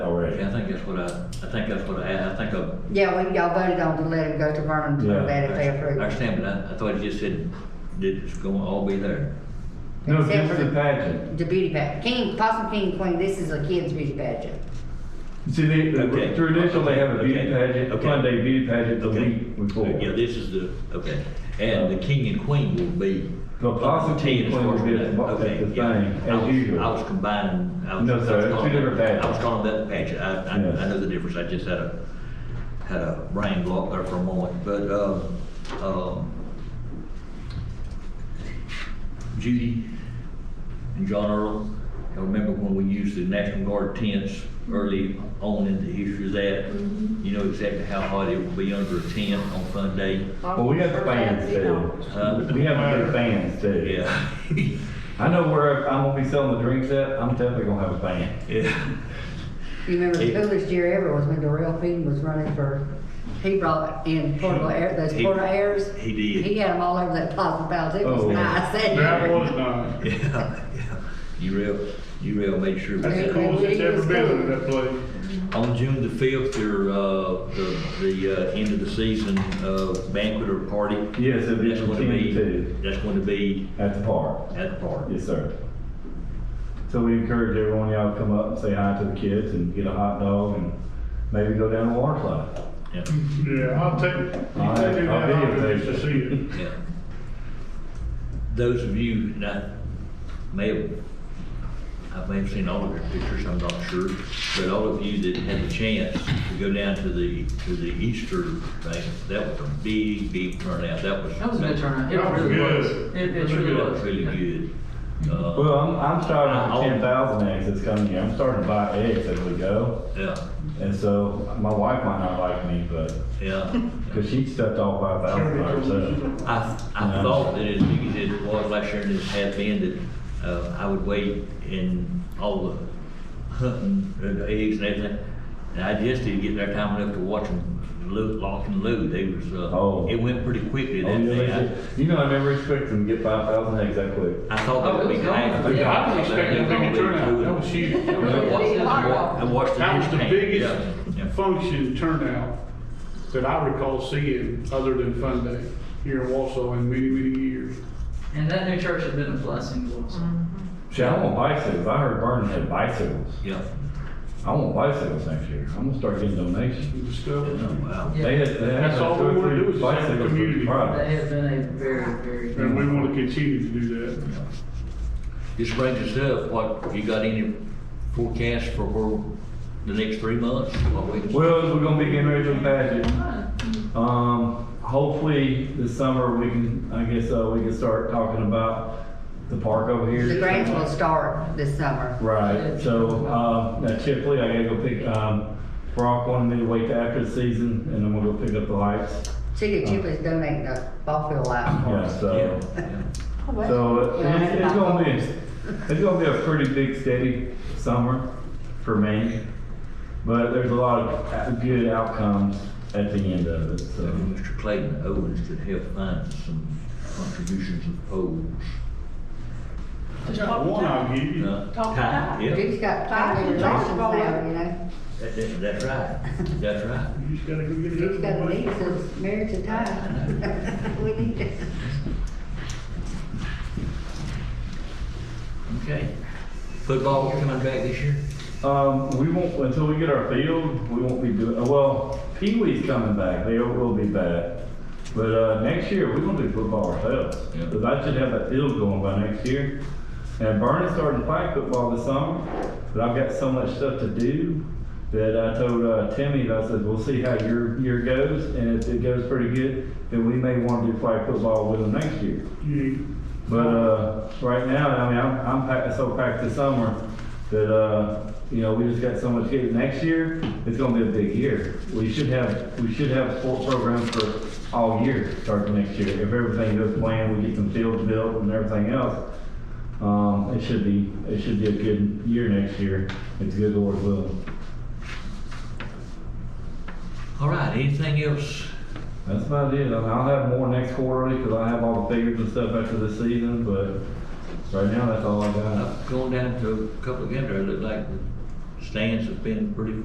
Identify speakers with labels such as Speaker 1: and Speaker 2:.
Speaker 1: I think that's what I, I think that's what I, I think I.
Speaker 2: Yeah, we, y'all voted on to let him go to Vernon to
Speaker 3: Yeah,
Speaker 2: that if they approve.
Speaker 1: I understand, but I, I thought you just said that it's gonna all be there.
Speaker 3: No,
Speaker 2: Except
Speaker 3: just
Speaker 2: for-
Speaker 3: the pageant.
Speaker 2: The beauty pageant, king, possum king, queen, this is a kid's beauty pageant.
Speaker 3: See, they,
Speaker 1: Okay.
Speaker 3: traditionally, they have a beauty
Speaker 1: Okay.
Speaker 3: pageant, a
Speaker 1: Okay.
Speaker 3: fun day beauty pageant the
Speaker 1: Okay.
Speaker 3: week before.
Speaker 1: Yeah, this is the, okay, and the king and queen will be.
Speaker 3: The possible
Speaker 1: Ten is
Speaker 3: queen will be at the-
Speaker 1: first.
Speaker 3: at the
Speaker 1: Okay, yeah.
Speaker 3: thing, as
Speaker 1: I was-
Speaker 3: usual.
Speaker 1: I was combining. I was-
Speaker 3: No, sir,
Speaker 1: I was
Speaker 3: it's two
Speaker 1: calling
Speaker 3: different
Speaker 1: that-
Speaker 3: pageants.
Speaker 1: I was calling that pageant, I, I, I
Speaker 3: Yes.
Speaker 1: know the difference, I just had a, had a brain block there for a moment, but, um, um, Judy and John Earl, I remember when we used the National Guard tents early on in the history of that, you know exactly how hot it would be under a tent on fun day.
Speaker 3: Well, we got the fans
Speaker 1: Huh?
Speaker 3: too. We have a good fans too.
Speaker 1: Uh, Yeah,
Speaker 3: I know where I'm gonna be selling the drinks at, I'm definitely gonna have a fan.
Speaker 1: yeah.
Speaker 2: You remember the
Speaker 1: Yeah.
Speaker 2: coolest year ever was when Darrell Feedon was running for, he brought in portable air, those
Speaker 1: He-
Speaker 2: portable airs.
Speaker 1: he did.
Speaker 2: He had them all over that possum palace, it was
Speaker 3: Oh.
Speaker 2: nice that
Speaker 4: That uh,
Speaker 2: year.
Speaker 4: was nice.
Speaker 1: Yeah, yeah. You real, you real made sure. we
Speaker 4: That's
Speaker 1: had-
Speaker 4: the coolest it's ever been in that place.
Speaker 1: On June the fifth, your, uh, the, the, uh, end of the season, uh, banquet or party.
Speaker 3: Yes, it'll be
Speaker 1: That's going to
Speaker 3: 10
Speaker 1: be,
Speaker 3: to.
Speaker 1: that's going to be
Speaker 3: At the park.
Speaker 1: at the park.
Speaker 3: Yes, sir. So we encourage everyone, y'all to come up and say hi to the kids and get a hot dog and maybe go down to water slide.
Speaker 1: Yeah,
Speaker 4: Yeah, I'll take, you
Speaker 3: I'll-
Speaker 4: can do
Speaker 3: I'll
Speaker 4: that, I'll do
Speaker 3: videotape
Speaker 4: this to
Speaker 3: it.
Speaker 4: see it.
Speaker 1: yeah. Those of you that may have, I may have seen all of your pictures, I'm not sure, but all of you that had the chance to go down to the, to the Easter thing, that was a big, big turnout. That was.
Speaker 5: That was a good turnout. It
Speaker 4: That was
Speaker 5: really was.
Speaker 4: good.
Speaker 5: It, it
Speaker 4: Really
Speaker 5: truly
Speaker 4: good.
Speaker 1: That was
Speaker 5: was.
Speaker 1: really good. Uh,
Speaker 3: Well, I'm, I'm starting
Speaker 1: I'll-
Speaker 3: with ten thousand eggs that's coming here. I'm starting to buy eggs as we go.
Speaker 1: Yeah,
Speaker 3: And so my wife might not like me, but,
Speaker 1: yeah.
Speaker 3: cause she stepped off five thousand by herself.
Speaker 1: I, I
Speaker 3: Yeah.
Speaker 1: thought that as big as it was last year and it had been, that, uh, I would wait in all the hunting, and the eggs and everything. And I just didn't get there time enough to watch them loot, lock and load. They was, uh,
Speaker 3: Oh.
Speaker 1: it went pretty quickly
Speaker 3: Oh,
Speaker 1: that
Speaker 3: yeah, they
Speaker 1: day.
Speaker 3: did.
Speaker 1: I-
Speaker 3: You know, I never expected them to get five thousand eggs that quick.
Speaker 1: I thought
Speaker 5: Oh,
Speaker 1: that
Speaker 5: it
Speaker 1: would be
Speaker 5: was going.
Speaker 1: half. the
Speaker 4: Yeah, I was
Speaker 1: time.
Speaker 4: expecting a bigger turnout, that was huge.
Speaker 5: It was really
Speaker 1: And
Speaker 5: good.
Speaker 1: watch- and watch the
Speaker 4: That was the
Speaker 1: hand. Yeah,
Speaker 4: biggest function turnout that I recall seeing, other than Fun Day, here in Wausau in many, many years.
Speaker 5: And that new church has been a blessing to us.
Speaker 3: See, I want bicycles. I heard Vernon had bicycles.
Speaker 1: Yeah, yeah.
Speaker 3: I want bicycles next year. I'm gonna start getting donations.
Speaker 4: You discover,
Speaker 1: Wow.
Speaker 5: Yeah.
Speaker 3: They had, they had
Speaker 4: That's all
Speaker 3: like two
Speaker 4: we
Speaker 3: or
Speaker 4: wanna do
Speaker 3: three
Speaker 4: is just have a
Speaker 3: bicycles for the
Speaker 4: community.
Speaker 5: That
Speaker 3: product.
Speaker 5: has been a very, very
Speaker 4: and we
Speaker 5: good.
Speaker 4: want to continue to do that.
Speaker 1: This brings us up, what, you got any forecast for where the next three months? What we-
Speaker 3: Well, we're gonna be getting ready for the pageant. Um, hopefully this summer we can, I guess, uh, we can start talking about the park over here.
Speaker 2: The grants will start this summer.
Speaker 3: Right, so, um, now typically I gotta go pick, um, Brock wanted me to wait till after the season and then we'll go pick up the lights.
Speaker 2: City of Chipley's donating the ball field out for
Speaker 3: Yeah,
Speaker 2: us.
Speaker 1: Yeah,
Speaker 3: so,
Speaker 1: yeah.
Speaker 3: so uh, it's, it's gonna be, it's gonna be a pretty big steady summer for me. But there's a lot of a- good outcomes at the end of it,
Speaker 1: So
Speaker 3: so.
Speaker 1: Mr. Clayton Owens could help find some contributions of polls.
Speaker 4: I got one I'll give you.
Speaker 1: Uh,
Speaker 6: Talk
Speaker 1: Ty-
Speaker 6: about
Speaker 1: Yeah,
Speaker 2: Duke's got
Speaker 6: Five
Speaker 2: family
Speaker 6: and
Speaker 2: relations
Speaker 6: dodgeball.
Speaker 2: now, you know?
Speaker 1: that- that- that's right, that's right.
Speaker 4: You just gotta go get
Speaker 2: Duke's
Speaker 4: it.
Speaker 2: got a niece that's married to Ty. We need to.
Speaker 1: Okay. Football coming back this year?
Speaker 3: Um, we won't, until we get our field, we won't be doing, uh, well, Pee Wee's coming back, they will be back. But, uh, next year, we're gonna do football ourselves,
Speaker 1: Yeah.
Speaker 3: because I should have that field going by next year. And Vernon's starting to play football this summer, but I've got so much stuff to do that I told, uh, Timmy, that I said, we'll see how your year goes, and if it goes pretty good, then we may want to play football with them next year.
Speaker 4: You-
Speaker 3: But uh, right now, I mean, I'm, I'm packed, so packed this summer that, uh, you know, we just got so much kids. Next year, it's gonna be a big year. We should have, we should have sport programs for all year, starting next year. If everything goes planned, we get some fields built and everything else. Um, it should be, it should be a good year next year. It's good Lord willing.
Speaker 1: All right, anything else?
Speaker 3: That's about it. I mean, I'll have more next quarterly because I have all the figures and stuff after the season, but right now, that's all I got.
Speaker 1: I've gone down to a couple of games, there. it looked like the stands have been pretty